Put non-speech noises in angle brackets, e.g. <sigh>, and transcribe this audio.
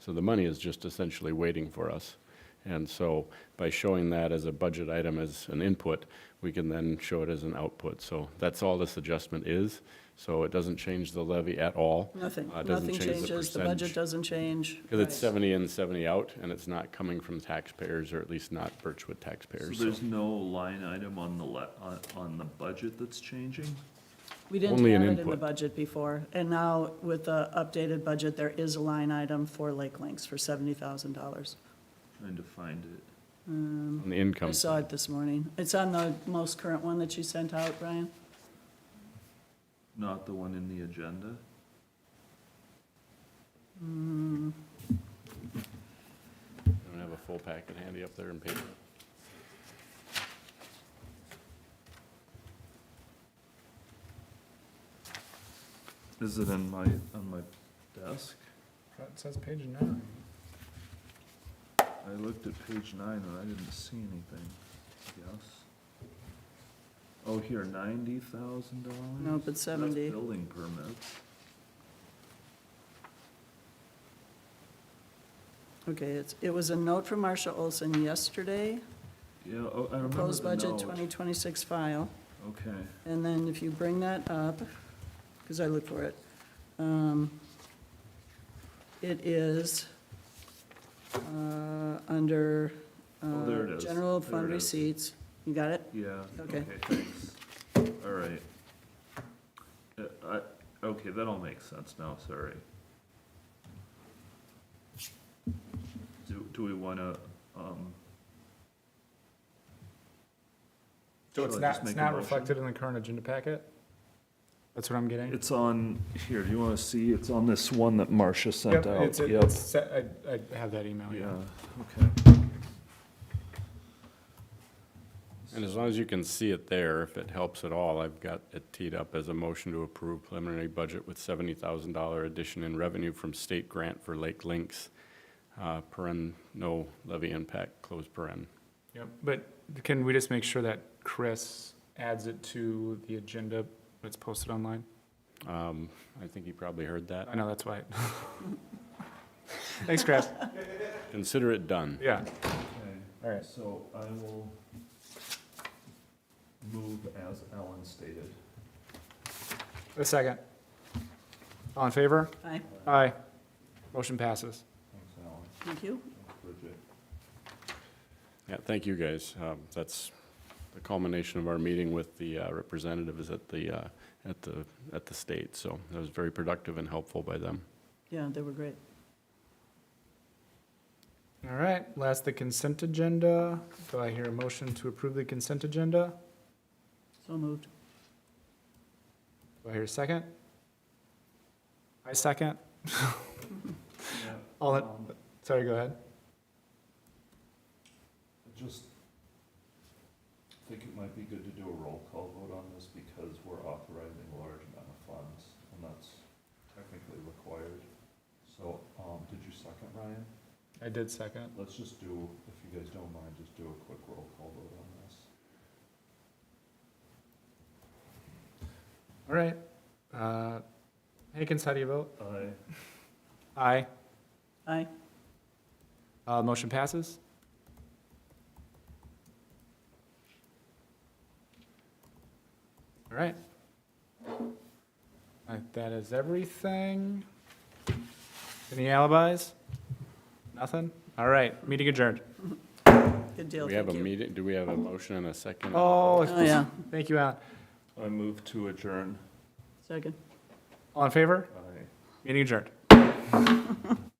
So the money is just essentially waiting for us. And so by showing that as a budget item, as an input, we can then show it as an output. So that's all this adjustment is. So it doesn't change the levy at all. Nothing, Uh, it doesn't nothing change the changes, the percentage. budget doesn't change. Because it's Right. 70 in, 70 out, and it's not coming from taxpayers, or at least not Birchwood So taxpayers. So there's no line item on the le, on, on the budget that's changing? We didn't only an have it in the input. budget before, and now with the updated budget, there is a line item for Lake Links for seventy thousand dollars. Mm, Trying to find it. On the income. I saw it this morning. It's on the most current one that you sent out, Brian? Not the one in the agenda? Mm, I don't have a full packet handy up there in paper. Is it in my, on my desk? It says page nine. I looked at page nine and I didn't see anything, yes? Oh, here, ninety thousand dollars? No, but 70. Building permits. Okay, it's, it was a note from Marcia Olson yesterday, Yeah, oh, I remember proposed the budget note. twenty twenty-six file. Okay, And then if you bring that up, because I look for it, um, it is uh, under Oh, there it uh, is. general There fund it is. receipts. You got it? yeah. Okay. Thanks. All right. Uh, I, okay, that all makes sense now, sorry. Do, do we wanna, um, So it's Shall I just not, it's make a not motion? reflected in the current agenda packet? That's what I'm getting? It's on, here, do you want to see? It's on this one that Marcia Yep, sent out. it's, Yep. it's, set- I, I have that email, Yeah, yeah. okay. And as long as you can see it there, if it helps at all, I've got it teed up as a motion to approve preliminary budget with seventy thousand dollar addition in revenue from state grant for Lake Links. Uh, paren, no levy impact, close paren. Yep, but can we just make sure that Chris adds it to the agenda that's posted online? Um, I think you probably heard that. I know, that's why. <laughs> Thanks, Chris. Consider it done. Yeah, Okay, all right. so I will move as Alan stated. A second. All in favor? Aye, Aye. Motion passes. Thanks, Alan. thank you. Thanks, Bridget. Yeah, thank you, guys. Um, that's the culmination of our meeting with the uh, representatives at the, uh, at the, at the state. So that was very productive and helpful by them. Yeah, they were great. All right, last, the consent agenda. Do I hear a motion to approve the consent agenda? So moved. Do I hear a second? I second. All in, Um, sorry, go ahead. I Just think it might be good to do a roll call vote on this because we're authorizing a large amount of funds and that's technically required. So, um, did you second, Ryan? I did second. Let's just do, if you guys don't mind, just do a quick roll call vote on this. All right. Uh, Hankins, how do you vote? Aye. Aye. Aye, Uh, motion passes. All right. I think that is everything. Any alibis? Nothing? All right, meeting adjourned. good Do deal, we have a thank you. meeting, do we have a motion and a second? Oh, Oh, yeah, thank you, Alan. I move to adjourn. second. All in favor? Aye. Meeting adjourned.